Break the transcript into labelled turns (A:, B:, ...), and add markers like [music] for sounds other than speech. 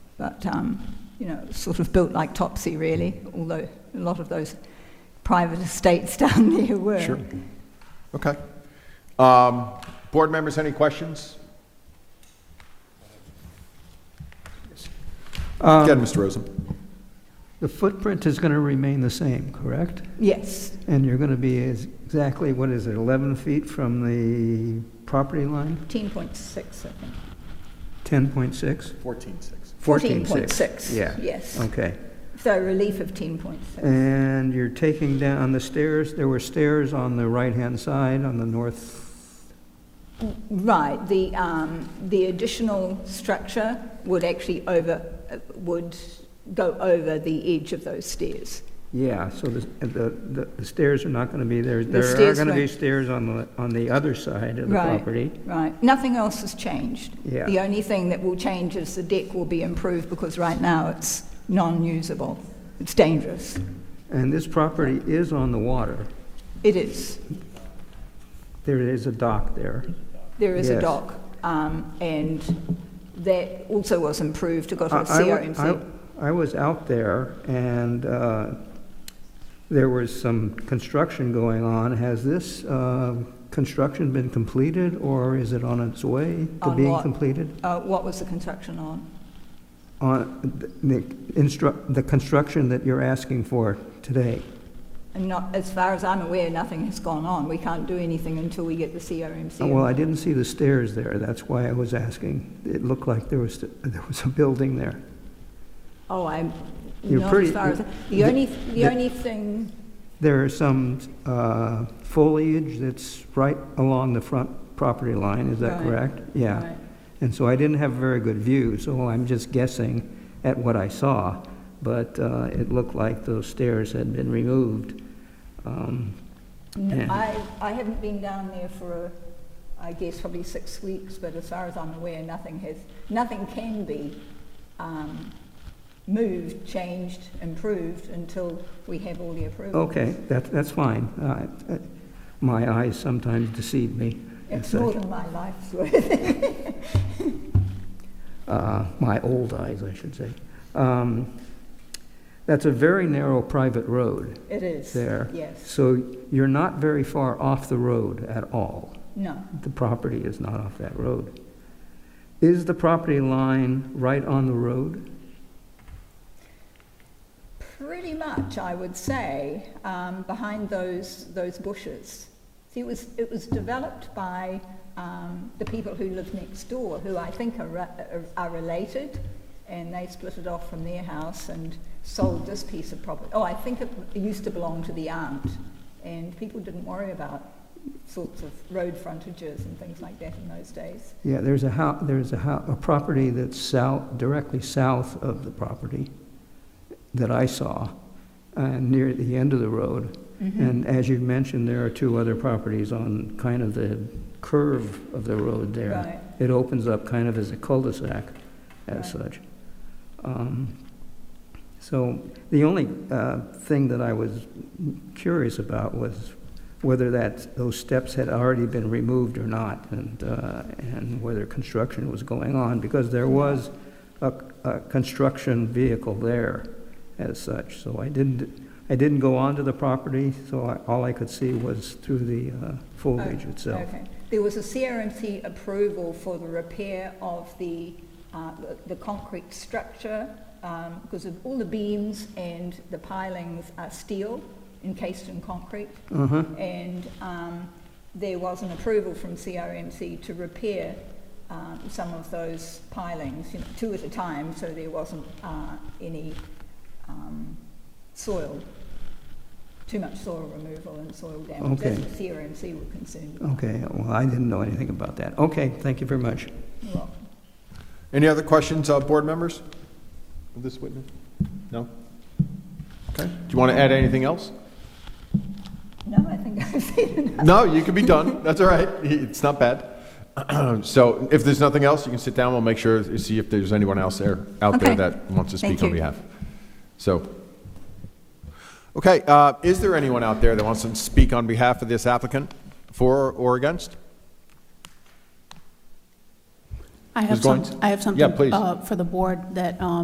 A: but um, you know, sort of built like Topsy, really. Although a lot of those private estates [laughs] down there were.
B: Sure. Okay. Um, Board members, any questions? Again, Mr. Rosen.
C: The footprint is going to remain the same, correct?
A: Yes,
C: And you're going to be as- exactly, what is it, 11 feet from the property line?
A: 14.6, I think.
C: 10.6?
B: 14-6.
A: 14.6,
C: Yeah. Oh. Uh.
A: yes.
C: Okay.
A: So a relief of 10.6.
C: And you're taking down the stairs, there were stairs on the right-hand side, on the north,
A: Right, the, um, the additional structure would actually over, uh, would go over the edge of those stairs.
C: yeah, so the- the the stairs are not going to be there.
A: The
C: There are
A: stairs
C: going to be
A: won't-
C: stairs on the, on the other side of the
A: Right.
C: property.
A: Right, nothing else has changed.
C: Yeah.
A: The only thing that will change is the deck will be improved because right now it's non-usable. It's dangerous.
C: And this property is on the water.
A: It is.
C: There is a dock there.
A: There is a
C: Yes.
A: dock, um, and that also was improved to go to a
C: I- I wa-
A: CRMC.
C: I I was out there, and uh, there was some construction going on. Has this uh, construction been completed, or is it on its way to
A: On
C: being
A: what?
C: completed?
A: Uh, what was the construction on?
C: On the instru- the construction that you're asking for today?
A: And not, as far as I'm aware, nothing has gone on. We can't do anything until we get the CRMC.
C: Uh, Oh, Well, I didn't see the stairs there, that's why I was asking. It looked like there was, there was a building there.
A: Oh, I'm,
C: You're
A: not
C: pretty-
A: as far as, the,
C: the-
A: only, the,
C: the-
A: only thing,
C: There is some uh, foliage that's right along the front property line, is that
A: Right.
C: correct? Yeah.
A: Right.
C: And so I didn't have very good view, so I'm just guessing at what I saw, but uh, it looked like those stairs had been removed. Um,
A: n-
C: Yeah.
A: I, I haven't been down there for, I guess, probably six weeks, but as far as I'm aware, nothing has, nothing can be um, moved, changed, improved until we have all the approval.
C: Okay, that- that's fine. Uh, My eyes sometimes deceive me. and
A: It's more
C: such.
A: than my life's worth. [laughs]
C: Uh, My old eyes, I should say. Um, That's a very narrow private road.
A: It is.
C: there.
A: Yes.
C: So you're not very far off the road at all.
A: No.
C: The property is not off that road. Is the property line right on the road?
A: Pretty much, I would say, um, behind those, those bushes. See, it was, it was developed by um, the people who live next door, who I think are, re- are- are related, and they split it off from their house and sold this piece of property. Oh, I think it used to belong to the aunt, and people didn't worry about sorts of road frontages and things like that in those days.
C: Yeah, there's a house, there's a house, a property that's south, directly south of the property that I saw, uh, near the end of the road. And as you mentioned, there are two other properties on kind of the curve of the road there.
A: Right.
C: It opens up kind of as a cul-de-sac
A: Right.
C: as such. Um, So the only uh, thing that I was curious about was whether that, those steps had already been removed or not, and, uh, and whether construction was going on, because there was a, a construction vehicle there as such. So I didn't, I didn't go onto the property, so I- all I could see was through the uh, foliage itself.
A: Oh, Okay. There was a CRMC approval for the repair of the, uh, the- the concrete structure, um, because of all the beams and the pilings are steel encased in concrete.
C: Uh-huh.
A: And um, there was an approval from CRMC to repair um, some of those pilings, you know, two at a time, so there wasn't uh, any um, soil, too much soil removal and soil damage. That's
C: Okay.
A: what CRMC were concerned about.
C: Okay, well, I didn't know anything about that. Okay, thank you very much.
A: You're welcome.
B: Any other questions, uh, board members? Of this witness? No? Okay. Do you want to add anything else?
A: No, I think I've seen enough.
B: No, you can be done. That's all right. It's not bad. [clears throat] So if there's nothing else, you can sit down. We'll make sure, see if there's anyone else there, out there
A: Okay.
B: that wants to speak
A: Thank
B: on
A: you.
B: behalf. So, okay, uh, is there anyone out there that wants to speak on behalf of this applicant, for or against?
D: I have
B: Ms. Goins?
D: some, I have
B: Yeah,
D: something
B: please.
D: uh, for the board that um,